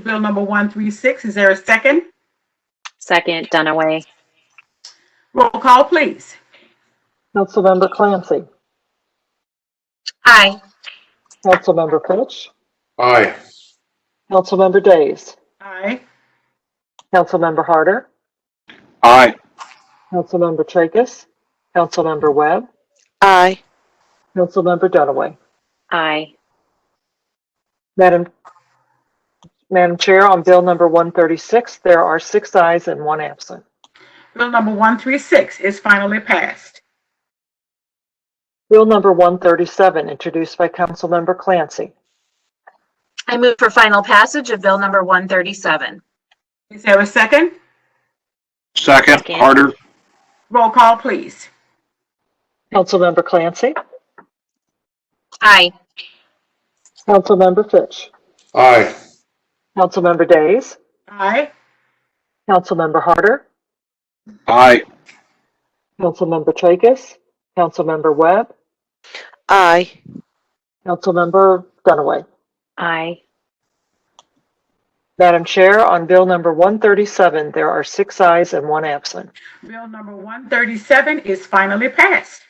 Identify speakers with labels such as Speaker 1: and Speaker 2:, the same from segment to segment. Speaker 1: Bill number 136. Is there a second?
Speaker 2: Second, Dunaway.
Speaker 1: Roll call, please.
Speaker 3: Councilmember Clancy.
Speaker 2: Aye.
Speaker 3: Councilmember Fitch.
Speaker 4: Aye.
Speaker 3: Councilmember Days.
Speaker 1: Aye.
Speaker 3: Councilmember Harder.
Speaker 4: Aye.
Speaker 3: Councilmember Tracus. Councilmember Webb.
Speaker 5: Aye.
Speaker 3: Councilmember Dunaway.
Speaker 2: Aye.
Speaker 3: Madam, Madam Chair, on Bill number 136, there are six ayes and one absent.
Speaker 1: Bill number 136 is finally passed.
Speaker 3: Bill number 137, introduced by Councilmember Clancy.
Speaker 6: I move for final passage of Bill number 137.
Speaker 1: Is there a second?
Speaker 4: Second,
Speaker 2: Second.
Speaker 4: Harder.
Speaker 1: Roll call, please.
Speaker 3: Councilmember Clancy.
Speaker 6: Aye.
Speaker 3: Councilmember Fitch.
Speaker 4: Aye.
Speaker 3: Councilmember Days.
Speaker 1: Aye.
Speaker 3: Councilmember Harder.
Speaker 4: Aye.
Speaker 3: Councilmember Tracus. Councilmember Webb.
Speaker 5: Aye.
Speaker 3: Councilmember Dunaway.
Speaker 2: Aye.
Speaker 3: Madam Chair, on Bill number 137, there are six ayes and one absent.
Speaker 1: Bill number 137 is finally passed.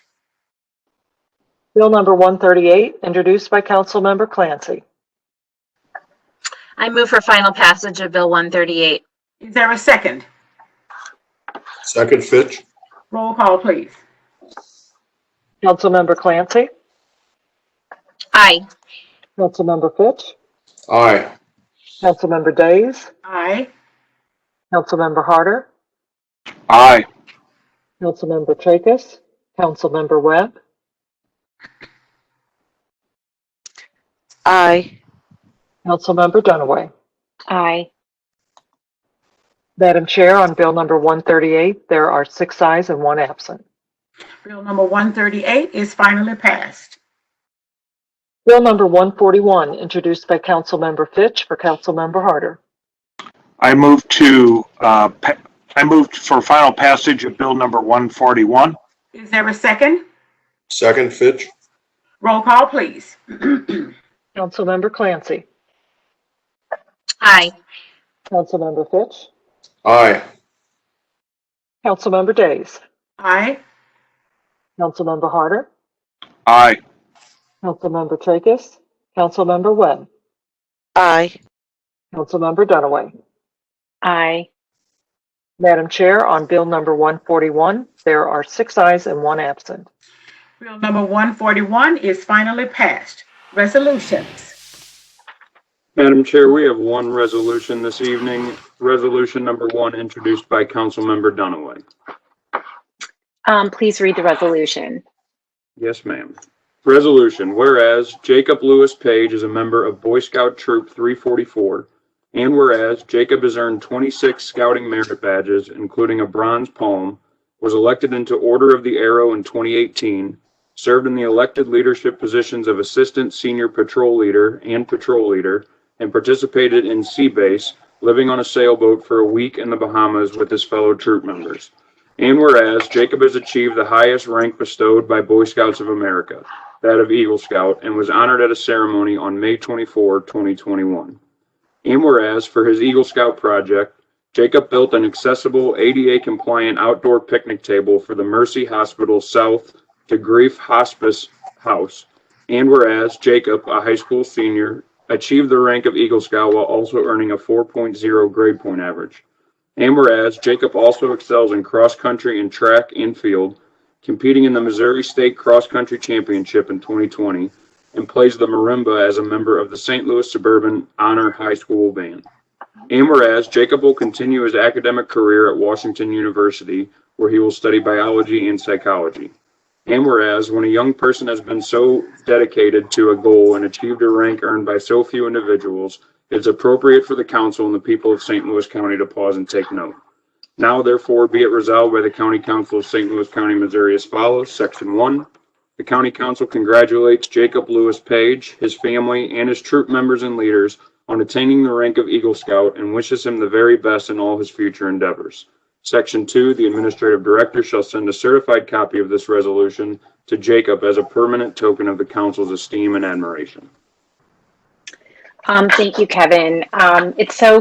Speaker 3: Bill number 138, introduced by Councilmember Clancy.
Speaker 6: I move for final passage of Bill 138.
Speaker 1: Is there a second?
Speaker 4: Second, Fitch.
Speaker 1: Roll call, please.
Speaker 3: Councilmember Clancy.
Speaker 6: Aye.
Speaker 3: Councilmember Fitch.
Speaker 4: Aye.
Speaker 3: Councilmember Days.
Speaker 1: Aye.
Speaker 3: Councilmember Harder.
Speaker 4: Aye.
Speaker 3: Councilmember Tracus. Councilmember Webb.
Speaker 5: Aye.
Speaker 3: Councilmember Dunaway.
Speaker 2: Aye.
Speaker 3: Madam Chair, on Bill number 138, there are six ayes and one absent.
Speaker 1: Bill number 138 is finally passed.
Speaker 3: Bill number 141, introduced by Councilmember Fitch for Councilmember Harder.
Speaker 7: I move to, uh, pa- I moved for final passage of Bill number 141.
Speaker 1: Is there a second?
Speaker 4: Second, Fitch.
Speaker 1: Roll call, please.
Speaker 3: Councilmember Clancy.
Speaker 6: Aye.
Speaker 3: Councilmember Fitch.
Speaker 4: Aye.
Speaker 3: Councilmember Days.
Speaker 1: Aye.
Speaker 3: Councilmember Harder.
Speaker 7: Aye.
Speaker 3: Councilmember Tracus. Councilmember Webb.
Speaker 5: Aye.
Speaker 3: Councilmember Dunaway.
Speaker 2: Aye.
Speaker 3: Madam Chair, on Bill number 141, there are six ayes and one absent.
Speaker 1: Bill number 141 is finally passed. Resolutions.
Speaker 8: Madam Chair, we have one resolution this evening. Resolution number one, introduced by Councilmember Dunaway.
Speaker 2: Um, please read the resolution.
Speaker 8: Yes, ma'am. Resolution, whereas Jacob Lewis Page is a member of Boy Scout Troop 344, and whereas Jacob has earned 26 scouting merit badges, including a bronze palm, was elected into Order of the Arrow in 2018, served in the elected leadership positions of Assistant Senior Patrol Leader and Patrol Leader, and participated in Sea Base, living on a sailboat for a week in the Bahamas with his fellow troop members. And whereas Jacob has achieved the highest rank bestowed by Boy Scouts of America, that of Eagle Scout, and was honored at a ceremony on May 24, 2021. And whereas for his Eagle Scout project, Jacob built an accessible ADA compliant outdoor picnic table for the Mercy Hospital South to Grief Hospice House. And whereas Jacob, a high school senior, achieved the rank of Eagle Scout while also earning a 4.0 grade point average. And whereas Jacob also excels in cross country and track and field, competing in the Missouri State Cross Country Championship in 2020, and plays the marimba as a member of the St. Louis Suburban Honor High School Band. And whereas Jacob will continue his academic career at Washington University, where he will study biology and psychology. And whereas when a young person has been so dedicated to a goal and achieved a rank earned by so few individuals, it's appropriate for the council and the people of St. Louis County to pause and take note. Now therefore be it resolved by the County Council of St. Louis County, Missouri as follows. Section one, the County Council congratulates Jacob Lewis Page, his family, and his troop members and leaders on attaining the rank of Eagle Scout and wishes him the very best in all his future endeavors. Section two, the Administrative Director shall send a certified copy of this resolution to Jacob as a permanent token of the council's esteem and admiration.
Speaker 2: Um, thank you, Kevin. Um, it's so